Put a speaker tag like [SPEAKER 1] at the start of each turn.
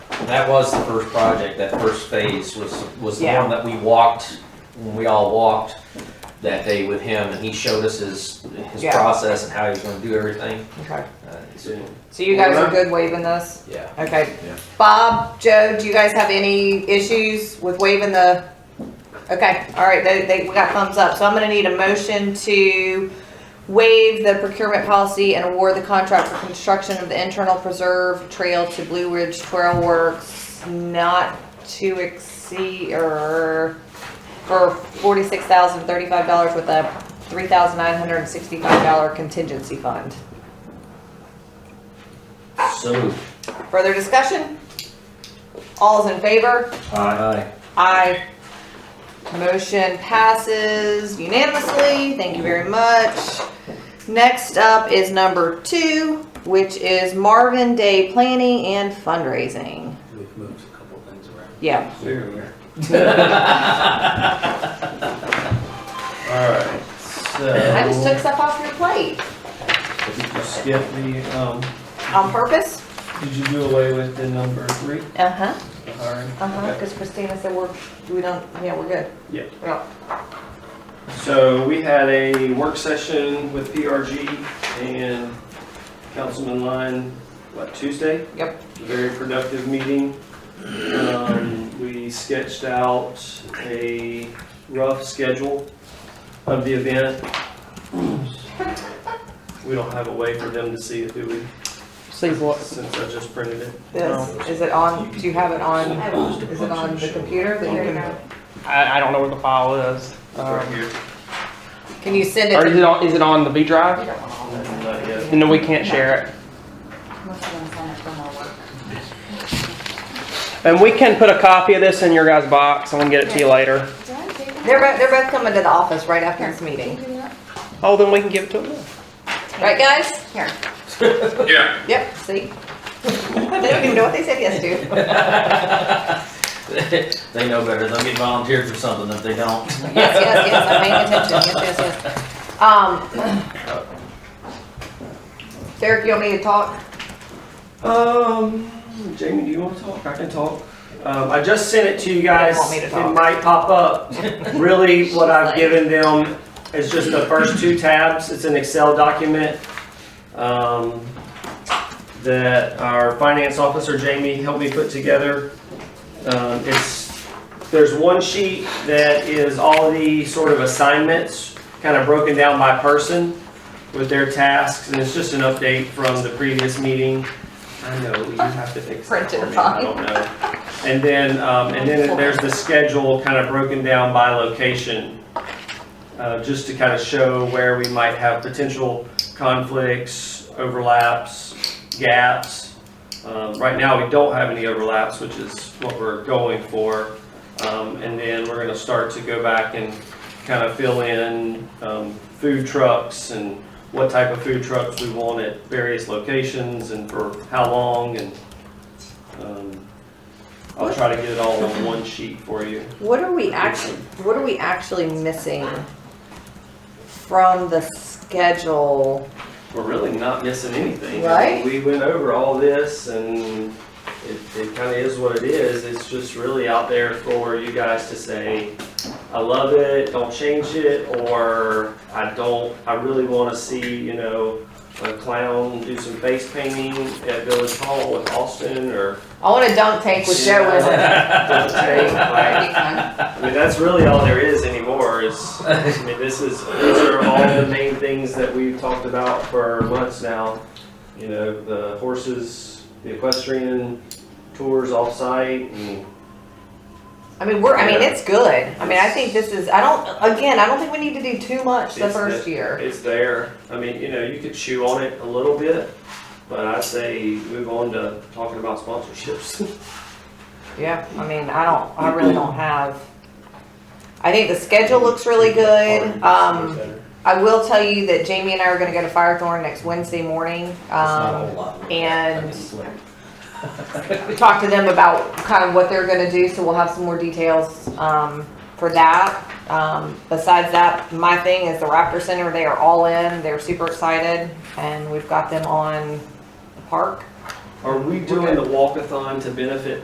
[SPEAKER 1] That was the first project, that first phase was, was the
[SPEAKER 2] Yeah.
[SPEAKER 1] one that we walked, when we all walked that day with him, and he showed us his, his
[SPEAKER 2] Yeah.
[SPEAKER 1] process and how he was gonna do everything.
[SPEAKER 2] Okay.
[SPEAKER 1] Uh, so,
[SPEAKER 2] So you guys are good waiving this?
[SPEAKER 1] Yeah,
[SPEAKER 2] Okay.
[SPEAKER 1] Yeah.
[SPEAKER 2] Bob, Joe, do you guys have any issues with waiving the? Okay, all right, they, they, we got thumbs up. So I'm gonna need a motion to waive the procurement policy and award the contract for construction of the internal preserve trail to Blue Ridge Trail Works not to exceed or for forty-six thousand thirty-five dollars with a three thousand nine hundred and sixty-five dollar contingency fund.
[SPEAKER 1] so,
[SPEAKER 2] Further discussion? All's in favor?
[SPEAKER 1] aye,
[SPEAKER 2] Aye. Motion passes unanimously. Thank you very much. Next up is number two, which is Marvin Day Planning and Fundraising.
[SPEAKER 3] We've moved a couple things around.
[SPEAKER 2] Yeah,
[SPEAKER 3] Alright,
[SPEAKER 2] I just took
[SPEAKER 3] so,
[SPEAKER 2] stuff off your plate
[SPEAKER 3] did you skip the, um,
[SPEAKER 2] on purpose.
[SPEAKER 3] did you do away with the number three?
[SPEAKER 2] Uh-huh,
[SPEAKER 3] The hiring?
[SPEAKER 2] uh-huh,
[SPEAKER 3] Okay.
[SPEAKER 2] because Christina said we're, we don't, yeah, we're good.
[SPEAKER 3] Yeah.
[SPEAKER 2] Yeah.
[SPEAKER 3] So we had a work session with PRG and Councilman Line, what, Tuesday?
[SPEAKER 2] Yep.
[SPEAKER 3] Very productive meeting. Um, we sketched out a rough schedule of the event. We don't have a way for them to see it, do we?
[SPEAKER 4] See what?
[SPEAKER 3] Since I just printed it.
[SPEAKER 2] This, is it on, do you have it on, is it on the computer that you can,
[SPEAKER 4] I, I don't know where the file is.
[SPEAKER 3] Right
[SPEAKER 4] Um,
[SPEAKER 3] here.
[SPEAKER 2] can you send it?
[SPEAKER 4] or
[SPEAKER 2] to-
[SPEAKER 4] is it on? Is it on the B drive?
[SPEAKER 3] Not yet.
[SPEAKER 4] No, we can't share it. And we can put a copy of this in your guys' box. I'm gonna get it to you later.
[SPEAKER 2] They're both, they're both coming to the office right after this meeting.
[SPEAKER 4] Oh, then we can give it to them.
[SPEAKER 2] Right, guys?
[SPEAKER 5] Here.
[SPEAKER 6] Yeah.
[SPEAKER 2] Yep, see? They don't even know what they said yes to.
[SPEAKER 1] they know better, they'll get volunteered for something if they don't.
[SPEAKER 2] Yes, yes, yes, I'm paying attention, yes, yes, yes. Um, Derek, you want me to talk?
[SPEAKER 3] Um, Jamie, do you want to talk? I can talk. Um, I just sent it to you guys.
[SPEAKER 2] want me to talk.
[SPEAKER 3] It might pop up. Really, what I've given them is just the first two tabs. It's an Excel document. Um, that our finance officer Jamie helped me put together. Um, it's, there's one sheet that is all the sort of assignments, kind of broken down by person with their tasks, and it's just an update from the previous meeting. I know, you have to fix that
[SPEAKER 2] Printed
[SPEAKER 3] for me, I
[SPEAKER 2] fine.
[SPEAKER 3] don't know. And then, um, and then there's the schedule kind of broken down by location, uh, just to kind of show where we might have potential conflicts, overlaps, gaps. Um, right now, we don't have any overlaps, which is what we're going for. Um, and then we're gonna start to go back and kind of fill in, um, food trucks and what type of food trucks we want at various locations and for how long and, um, I'll try to get it all on one sheet for you.
[SPEAKER 2] What are we actually, what are we actually missing from the schedule?
[SPEAKER 3] We're really not missing anything.
[SPEAKER 2] Right?
[SPEAKER 3] We went over all this and it, it kind of is what it is. It's just really out there for you guys to say, I love it, don't change it, or I don't, I really want to see, you know, a clown do some face painting at Village Hall with Austin or
[SPEAKER 2] I want a dunk tank with Joe in it.
[SPEAKER 3] don't take, like,
[SPEAKER 5] That'd
[SPEAKER 3] I mean, that's really all there is anymore. Is I mean, this is these are all the main things that we've talked about for months now. You know, the horses, the equestrian tours off site, and
[SPEAKER 2] I mean, we're, I mean, it's good. I mean, I think this is, I don't, again, I don't think we need to do too much the
[SPEAKER 3] It's
[SPEAKER 2] first
[SPEAKER 3] the-
[SPEAKER 2] year.
[SPEAKER 3] it's there. I mean, you know, you could chew on it a little bit, but I'd say move on to talking about sponsorships.
[SPEAKER 2] Yeah, I mean, I don't, I really don't have, I think the schedule looks really good. Um, I will tell you that Jamie and I are gonna go to Firethorn next Wednesday morning. Um, and- we talked to them about kind of what they're gonna do, so we'll have some more details, um, for that. Um, besides that, my thing is the Raptor Center, they are all in, they're super excited, and we've got them on the park.
[SPEAKER 3] Are we doing the walkathon to benefit